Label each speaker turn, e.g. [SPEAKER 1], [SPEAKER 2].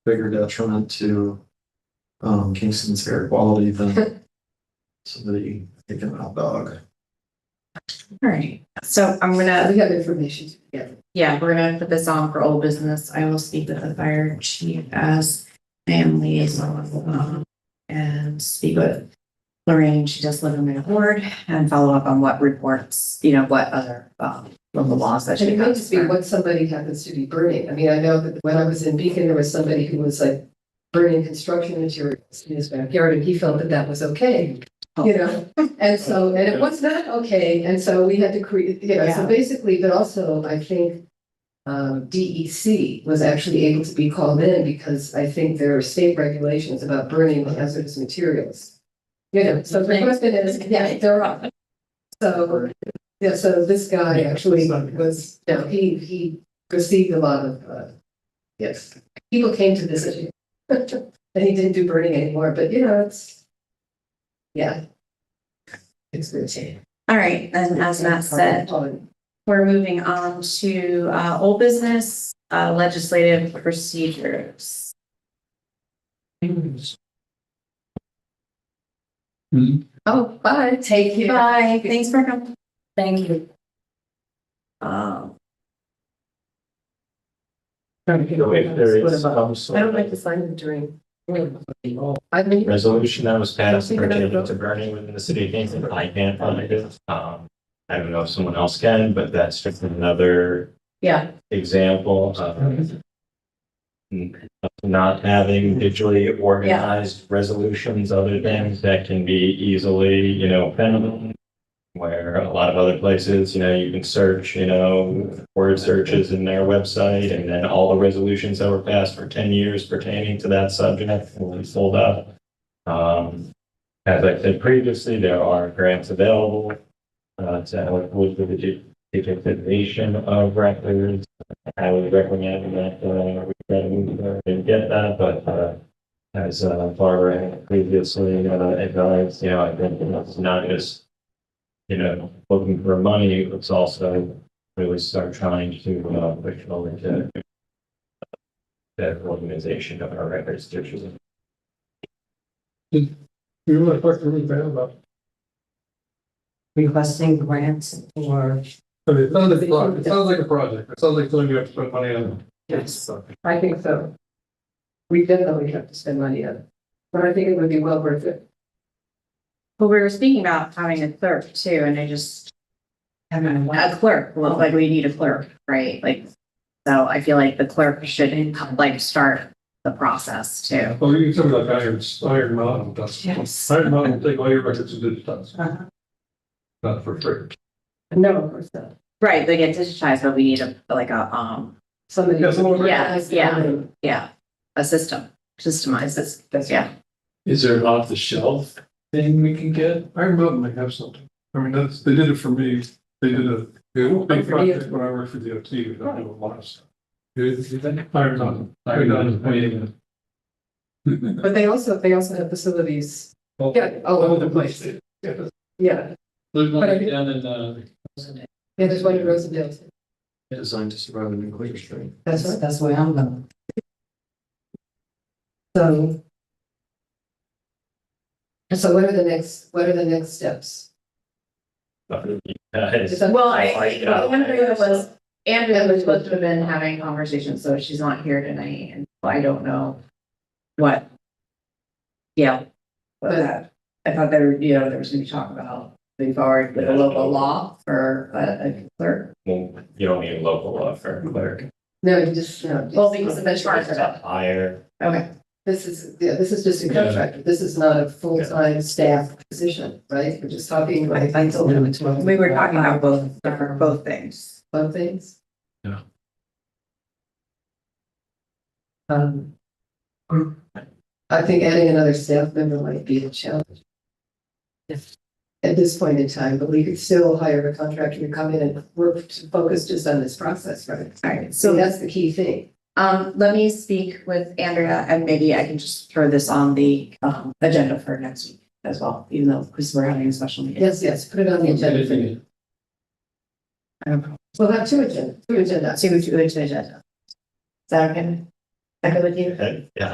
[SPEAKER 1] bigger detriment to um Kingston's air quality than somebody taking out dog.
[SPEAKER 2] All right, so I'm gonna,
[SPEAKER 3] Uh, We have information to get.
[SPEAKER 2] yeah, we're gonna put this on for old business. I will speak with the fire chief as family liaison. um, And speak with Lorraine, she does live in my ward, and follow up on what reports, you know, what other, um, local laws that
[SPEAKER 3] And
[SPEAKER 2] she
[SPEAKER 3] it may
[SPEAKER 2] has.
[SPEAKER 3] just be what somebody happens to be burning. I mean, I know that when I was in Beacon, there was somebody who was like burning construction materials in his backyard and he felt that that was okay, you know? And so, and it was not okay. And so we had to create, you know, so
[SPEAKER 2] Yeah.
[SPEAKER 3] basically, but also I think um, DEC was actually able to be called in because I think there are state regulations about burning hazardous materials. You know, so the question is, yeah, there are. So, yeah, so this guy
[SPEAKER 1] Yeah,
[SPEAKER 3] actually
[SPEAKER 1] it's not-
[SPEAKER 3] was, no, he, he received a lot of, uh, yes, people came to this issue. And he didn't do burning anymore, but you know, it's, yeah. It's good.
[SPEAKER 2] All right, and as Matt said, We're moving on to uh old business uh legislative procedures.
[SPEAKER 3] Oh, bye, take care.
[SPEAKER 2] Bye, thanks for coming. Thank you. Um,
[SPEAKER 4] If there is
[SPEAKER 3] I
[SPEAKER 4] some sort
[SPEAKER 3] don't like to
[SPEAKER 4] of
[SPEAKER 3] sign the dream. I mean,
[SPEAKER 4] resolution that was passed pertaining to burning within the city of Kingston, I can't find it. Um, I don't know if someone else can, but that's just another
[SPEAKER 2] yeah,
[SPEAKER 4] example of not having digitally organized resolutions, other things that can be easily, you know, found. Where a lot of other places, you know, you can search, you know, word searches in their website and then all the resolutions that were passed for ten years pertaining to that subject will be pulled up. Um, as I said previously, there are grants available uh, to help with the digi- digitization of records. I would recommend that, uh, we try to move there and get that, but, uh, as uh, Barbara had previously, uh, advised, you know, I think it's not just, you know, looking for money, it's also really start trying to, uh, push it over to the organization of our records digitally.
[SPEAKER 5] We were talking really bad about,
[SPEAKER 6] requesting grants or
[SPEAKER 5] I mean, it sounds like, a project. it sounds like a project, it sounds like something you have to spend money on. Oh,
[SPEAKER 3] yes, I think so. We definitely have to spend money on it, but I think it would be well worth it.
[SPEAKER 2] well, we were speaking about having a clerk too, and I just.
[SPEAKER 6] having
[SPEAKER 2] A clerk, well, like we need a clerk, right, like. So I feel like the clerk should like start the process too.
[SPEAKER 5] Well, you can tell me like Iron, Iron Mountain does.
[SPEAKER 6] Yes.
[SPEAKER 5] Iron Mountain will take all your records and digitize,
[SPEAKER 6] Uh-huh.
[SPEAKER 5] not for free.
[SPEAKER 3] No, of course not.
[SPEAKER 2] Right, they get digitized, but we need a, like a, um,
[SPEAKER 3] Somebody.
[SPEAKER 5] Yeah, someone-
[SPEAKER 2] Yeah, yeah. yeah, a system, systemized this.
[SPEAKER 3] That's,
[SPEAKER 2] Yeah.
[SPEAKER 3] yeah.
[SPEAKER 1] Is there an off the shelf thing we can get?
[SPEAKER 5] Iron Mountain might have something, I mean, that's, they did it for me, they did a, they did a big
[SPEAKER 3] Oh, For you.
[SPEAKER 5] project when I worked for the OT, we did a lot of stuff. Iron Mountain. Iron
[SPEAKER 1] Iron
[SPEAKER 5] Mountain.
[SPEAKER 3] But they also, they also have facilities,
[SPEAKER 5] Well,
[SPEAKER 3] yeah, all over the place,
[SPEAKER 5] Yeah, that's-
[SPEAKER 3] yeah.
[SPEAKER 1] There's
[SPEAKER 3] one right
[SPEAKER 1] down in, uh.
[SPEAKER 3] Yeah, there's one in Rosendale.
[SPEAKER 1] Designed to survive a nuclear strike.
[SPEAKER 3] That's
[SPEAKER 6] That's,
[SPEAKER 3] right.
[SPEAKER 6] that's where I'm going.
[SPEAKER 3] So. So what are the next, what are the next steps?
[SPEAKER 4] But, uh, it's-
[SPEAKER 3] Is that-
[SPEAKER 2] Well, I,
[SPEAKER 4] I
[SPEAKER 2] I-
[SPEAKER 4] got
[SPEAKER 2] one thing
[SPEAKER 4] it.
[SPEAKER 2] that was, Andrea was supposed to have been having conversations, so she's not here tonight, and I don't know what. Yeah. what that- I thought there, you know, there was gonna be talk about moving forward with a local law for a a clerk.
[SPEAKER 4] Well, you don't need a local law for a clerk.
[SPEAKER 3] No, you just, no.
[SPEAKER 2] Well, because of the charge of it.
[SPEAKER 4] Hire,
[SPEAKER 2] Okay,
[SPEAKER 3] This is, yeah, this is just a contract. This is not a full-time staff position, right? We're just talking
[SPEAKER 6] I,
[SPEAKER 3] about
[SPEAKER 6] I told him it's. what
[SPEAKER 2] We were talking about
[SPEAKER 6] both, both things.
[SPEAKER 3] fun things.
[SPEAKER 1] Yeah.
[SPEAKER 3] Um. I think adding another staff member might be a challenge.
[SPEAKER 6] Yes.
[SPEAKER 3] At this point in time, but we could still hire a contractor to come in and work to focus just on this process, right?
[SPEAKER 2] all right,
[SPEAKER 3] So
[SPEAKER 2] so,
[SPEAKER 3] that's the key thing.
[SPEAKER 2] um, let me speak with Andrea, and maybe I can just throw this on the, um, agenda for next week as well, even though, because we're having a special meeting.
[SPEAKER 3] Yes, yes, put it on the agenda. for-
[SPEAKER 2] I don't know.
[SPEAKER 3] We'll have two agenda, two agendas.
[SPEAKER 2] Two, two agenda. Is that okay? Echo with you.
[SPEAKER 4] Yeah,